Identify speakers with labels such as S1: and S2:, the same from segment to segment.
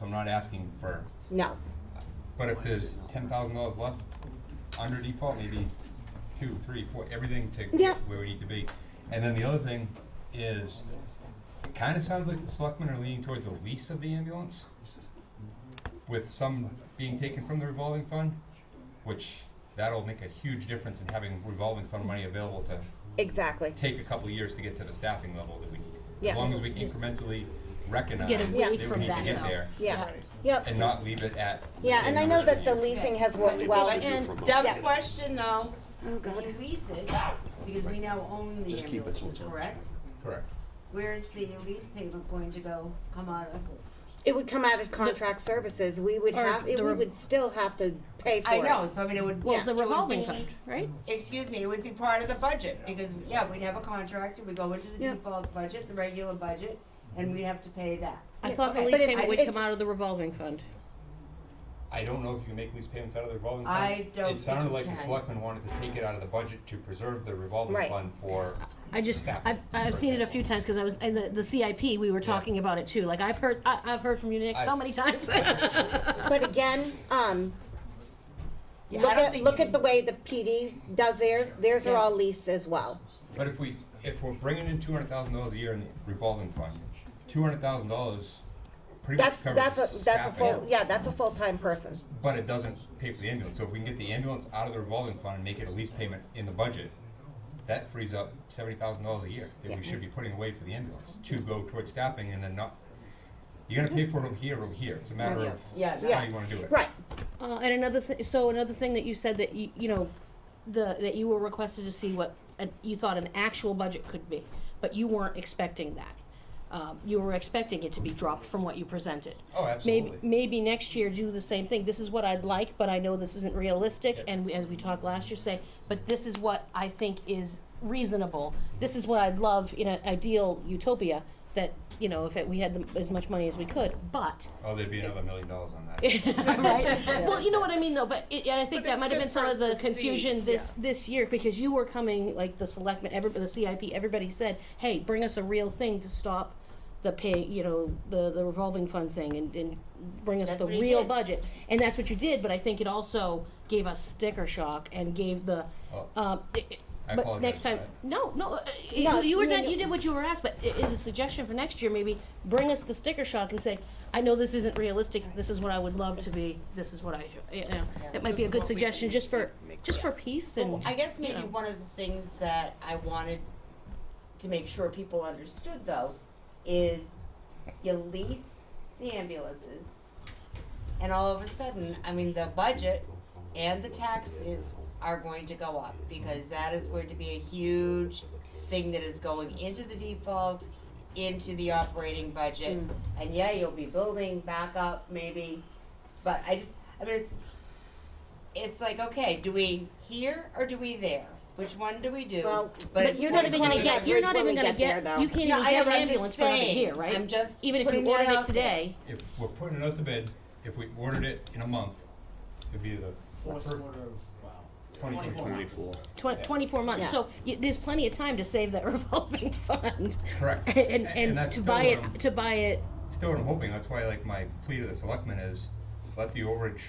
S1: So I'm not asking for,
S2: No,
S1: but if there's ten thousand dollars left under default, maybe two, three, four, everything to
S2: Yeah.
S1: where we need to be. And then the other thing is, it kinda sounds like the selectmen are leaning towards a lease of the ambulance with some being taken from the revolving fund, which that'll make a huge difference in having revolving fund money available to
S2: exactly.
S1: take a couple of years to get to the staffing level that we need.
S2: Yeah.
S1: As long as we incrementally recognize
S3: Get
S1: that
S3: away
S1: we need to
S3: from that,
S1: get
S3: though.
S1: there
S2: Yeah, yep.
S1: and not leave it at.
S2: Yeah, and I know that the leasing has worked well.
S4: And dumb
S2: Yeah.
S4: question though,
S2: Oh,
S4: we
S2: God.
S4: lease it, because we now own the
S5: Just keep it so
S4: ambulances,
S5: it's on.
S4: correct?
S1: Correct.
S4: Where is the lease payment going to go, come out of?
S2: It would come out of contract services. We would
S3: Or
S2: have, it-
S3: the
S2: we
S3: rev-
S2: would still have to pay for
S4: I
S2: it.
S4: know, so I mean, it would,
S3: Well,
S4: yeah,
S3: the
S4: it would
S3: revolving
S4: be-
S3: fund, right?
S4: Excuse me, it would be part of the budget, because, yeah, we'd have a contract, and we go into the
S2: Yeah.
S4: default budget, the regular budget, and we'd have to pay that.
S3: I thought the
S2: But
S3: lease
S2: it's-
S3: payment would
S2: it's-
S3: come out of the revolving fund.
S1: I don't know if you can make lease payments out of the revolving fund.
S4: I don't
S1: It sounded
S4: think you
S1: like the
S4: can.
S1: selectmen wanted to take it out of the budget to preserve the revolving
S2: Right.
S1: fund for,
S3: I just,
S1: Staff,
S3: I've, I've
S1: for
S3: seen it a
S1: example.
S3: few times, cause I was, in the, the CIP, we were talking about it too, like, I've heard, I, I've heard from you, Nick, so
S1: I-
S3: many times.
S2: But again, um,
S4: Yeah, I
S2: look
S4: don't
S2: at,
S4: think
S2: look
S4: you
S2: at the way the PD does theirs. Theirs are
S3: Yeah.
S2: all leased as well.
S1: but if we, if we're bringing in two hundred thousand dollars a year in the revolving fund, two hundred thousand dollars pretty much
S2: That's,
S1: covers
S2: that's
S1: the
S2: a, that's a
S1: staffing,
S2: full, yeah, that's a full-time person.
S1: But it doesn't pay for the ambulance, so if we can get the ambulance out of the revolving fund and make it a lease payment in the budget, that frees up seventy thousand dollars a year that we should be putting away for the ambulance to go towards staffing and then not, you're gonna pay for it over here, over here, it's a matter of
S4: Yeah,
S1: how you wanna do it.
S2: Right,
S3: Uh, and another thing, so another thing that you said that you, you know, the, that you were requested to see what an, you thought an actual budget could be, but you weren't expecting that. Um, you were expecting it to be dropped from what you presented.
S1: Oh,
S3: Maybe,
S1: absolutely.
S3: maybe next year do the same thing. This is what I'd like, but I know this isn't realistic. And we, as we talked last year, say, but this is what I think is reasonable. This is what I'd love in an ideal utopia that, you know, if it, we had the, as much money as we could, but,
S1: Oh, there'd be another million dollars on that.
S3: right? Well, you know what I mean though, but it, and I think
S6: But
S3: that
S6: it's
S3: might
S6: good
S3: have been some
S6: for
S3: of
S6: us
S3: the
S6: to see,
S3: confusion this, this year because you were coming, like the selectmen, everybody, the CIP, everybody said, hey, bring us a real thing to stop the pay, you know, the, the revolving fund thing and, and bring us
S4: That's
S3: the
S4: what he
S3: real
S4: did.
S3: budget. And that's what you did, but I think it also gave us sticker shock and gave the,
S1: Oh.
S3: um, it- it-
S1: I
S3: but
S1: apologize
S3: next time,
S1: for that.
S3: no, no, uh,
S2: No,
S3: you, you were
S2: no,
S3: done,
S2: no.
S3: you did what you were asked, but i- is a suggestion for next year, maybe bring us the sticker shock and say, I know this isn't realistic, this is what I would love to be, this is what I, should- you know, that might be a good suggestion, just for, just for peace and,
S4: Well, Oh, I guess
S3: you
S4: maybe
S3: know.
S4: one of the things that I wanted to make sure people understood though is you lease the ambulances and all of a sudden, I mean, the budget and the taxes are going to go up because that is going to be a huge thing that is going into the default, into the operating budget.
S3: Mm.
S4: And yeah, you'll be building back up maybe, but I just, I mean, it's, it's like, okay, do we here or do we there? Which one do we do?
S2: Well,
S4: it's
S3: But you're not
S4: going
S3: even
S4: to
S3: gonna
S4: be-
S3: get, you're not
S2: When we
S3: even gonna
S2: get there,
S3: get,
S2: though.
S3: you can't
S4: No,
S3: even
S4: I
S3: get an
S4: know, but I'm just
S3: ambulance for another
S4: saying.
S3: year, right?
S4: I'm just
S3: Even if you
S4: putting that
S3: ordered it
S4: out there.
S3: today,
S1: If we're putting it out to bid, if we ordered it in a month, it'd be the
S7: Fourth
S1: fir-
S7: quarter of, wow.
S1: twenty-four.
S5: Twenty-four.
S3: tw- twenty-four months,
S2: Yeah.
S3: so y- there's plenty of time to save that revolving fund.
S1: Correct.
S3: And,
S1: A- and
S3: and
S1: that's
S3: to
S1: still um,
S3: buy
S1: what I'm-
S3: it, to buy it,
S1: Still, what I'm hoping, that's why like my plea to the selectmen is, let the overage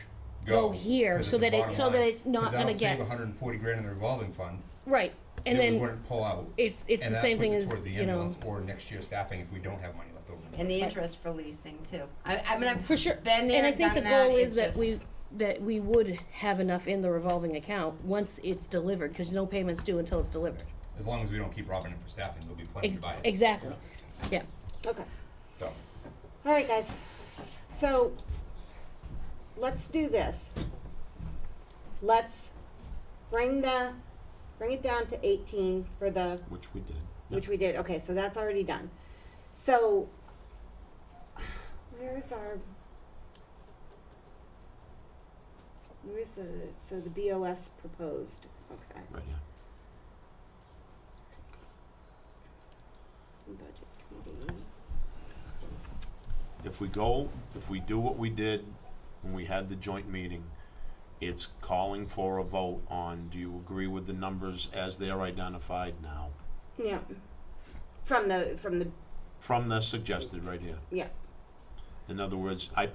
S1: go.
S3: Go here,
S1: 'cause
S3: so
S1: it's the
S3: that it-
S1: bottom
S3: so that
S1: line.
S3: it's not
S1: 'Cause
S3: gonna
S1: that'll save
S3: get-
S1: hundred and forty grand in the revolving fund,
S3: right, and
S1: that we
S3: then
S1: wouldn't pull out.
S3: it's, it's
S1: and
S3: the
S1: that
S3: same
S1: puts
S3: thing
S1: it
S3: as,
S1: towards the
S3: you know,
S1: ambulance Or next year staffing if we don't have money left over.
S4: And the interest for leasing too. I, I mean, I've
S3: for sure.
S4: been there,
S3: And I think the
S4: done that,
S3: goal is
S4: it's
S3: that
S4: just-
S3: we, that we would have enough in the revolving account once it's delivered, cause no payment's due until it's delivered.
S1: As long as we don't keep robbing it for staffing, there'll be plenty
S3: Ex-
S1: to buy it,
S3: Exactly, yeah.
S2: okay.
S1: so.
S2: All right, guys. So let's do this. Let's bring the, bring it down to 18 for the,
S5: Which we did.
S2: which we did. Okay, so that's already done. So where is our, where's the, so the BOS proposed? Okay.
S5: Right, yeah.
S2: Budget committee.
S5: If we go, if we do what we did when we had the joint meeting, it's calling for a vote on, do you agree with the numbers as they are identified now?
S2: Yeah. From the, from the,
S5: From the suggested right here.
S2: yeah.
S5: In other words, I